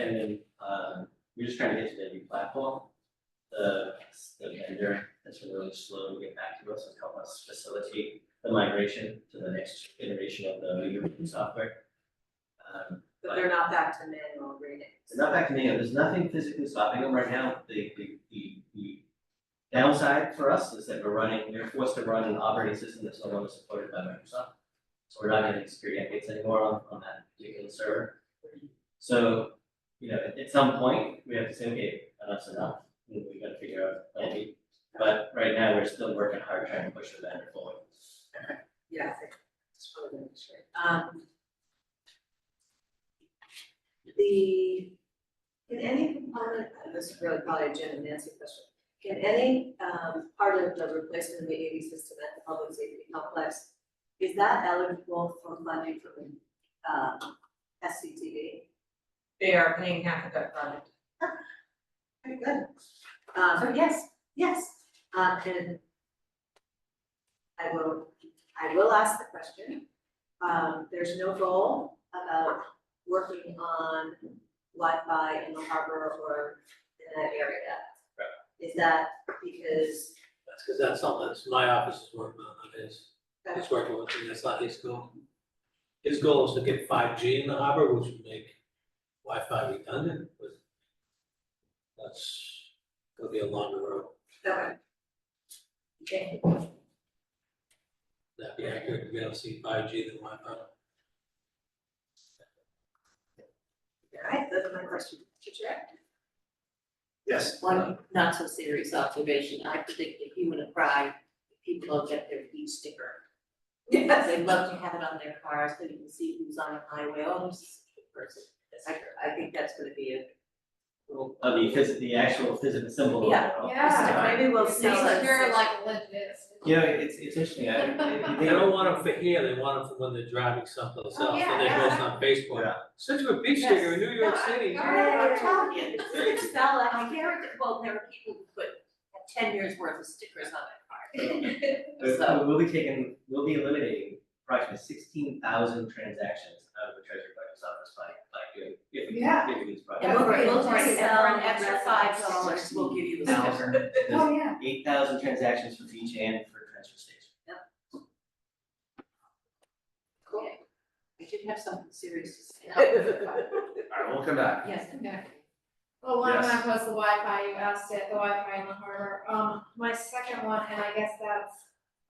And then, um, we're just trying to get to the new platform. The, the vendor has been really slow to get back to us and help us facilitate the migration to the next iteration of the Weaver software. Um, But they're not back to manual readings. it's not back to me, there's nothing physically stopping them right now, the, the, the, the downside for us is that we're running, we're forced to run an operating system that's no longer supported by Microsoft. So we're not getting security updates anymore on, on that particular server. So, you know, at- at some point, we have to say, okay, enough's enough, we we gotta figure out, a plan. but right now, we're still working hard trying to push the vendor forward. Yeah, I think it's probably gonna be straight. Um. The, can any component, and this is really probably a Jen and Nancy question, can any um part of the replacement of the AV system at the public safety complex, is that eligible for funding from um SCTV? They are paying half of that project. Very good. Um, so yes, yes, um, and I will, I will ask the question. Um, there's no goal about working on Wi-Fi in the harbor or in that area. Is that because, That's because that's something that's my office is working on, not his. He's working with me, that's not his goal. His goal is to get five G in the harbor, which would make Wi-Fi redundant, but that's gonna be a long road. okay. Okay, That'd be accurate, we don't see five G than Wi-Fi. all right, that's my question. Teacher? Yes. One not so serious observation, I predict that you would cry, if people don't get their E sticker. They'd love to have it on their cars, so you can see who's on the highway, oh, this is a good person. I, I think that's gonna be a little. I mean, because Oh, the actual physical symbol. Yeah. Yeah. Maybe we'll So see. it's- Secure like legit. You know, it's, it's interesting, I, They don't want them for here, they want them for when they're driving someplace Oh, else, yeah, and they yeah. post on Facebook. Yeah. Send you a beach sticker in New York Yes. City. Yeah. I'm telling you, it's Excel, I guarantee, well, there are people who put ten years worth of stickers on their car. But So- We'll be taking, we'll be eliminating approximately sixteen thousand transactions out of the treasury collector's office by, by doing, if we, Yeah. if we do this And project. we'll, Right. we'll Right. just sell an Right. extra five dollars, we'll give you the sticker. There's Oh, yeah. eight thousand transactions for each and for transfer station. Cool. I should have something serious to say. All right, we'll come back. Yes, Well, one of Yes. mine was the Wi-Fi, you asked it, the Wi-Fi in the harbor. Um, my second one, and I guess that's,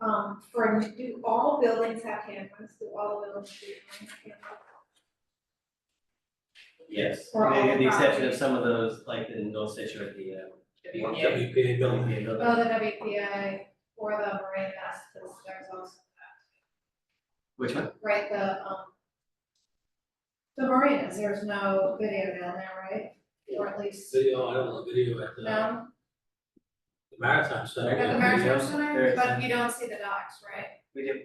um, for, do all buildings have cameras? Do all buildings have cameras? Yes, For all with the exception of properties. some of those, like the North Station or the, um. Yeah, you pay a bill. Oh, the WPI or the Marina, because there's also Which one? that, right, the, um, the marinas, there's no video down there, right? Or at least, Video, I don't know, video at the no? the Maritime Center. At the yeah. Maritime there Center, is but you don't see the docks, right? We did,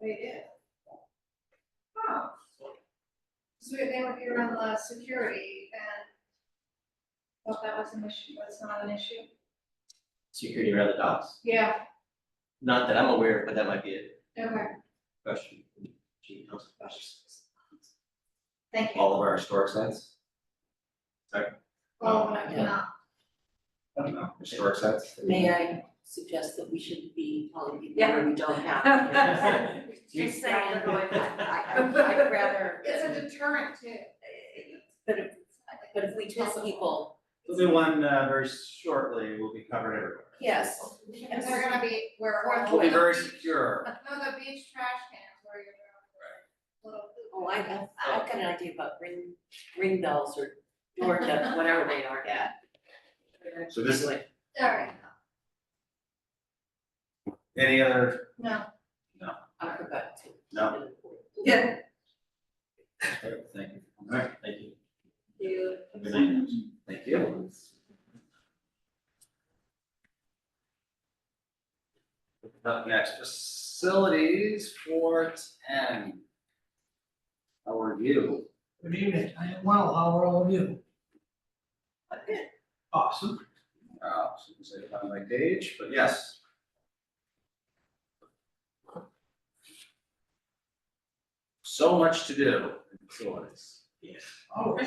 They did. Oh. So they would be around the security and thought that was an issue, but it's not an issue. security around the docks, Yeah, not that I'm aware of, but that might be a okay, question. Gee, no. thank you. All of our historic sites, Well, I Yeah. cannot, historic sites. may I suggest that we should be calling people Yeah. who we don't have? Just saying, the Wi-Fi. I'd rather, it's a deterrent too. but if, but if we tell people, We'll do one uh, very shortly, we'll be covered everywhere. yes, And they're gonna be, where Or We'll be very secure. No, the beach trash cans where you're. Little. oh, I have, I've got an idea about ring, ring bells or door knobs, whatever they are. Yeah. So this is, Anyway, All right, any other, no, I forgot to. No. Yeah. Thank you. All right, thank you. You, Have a Good night. thank you. Up next, facilities for ten. How are you? Good evening, I am well, how are all of you? Awesome. Uh, so you can say it on my page, but yes. So much to do in facilities. Oh,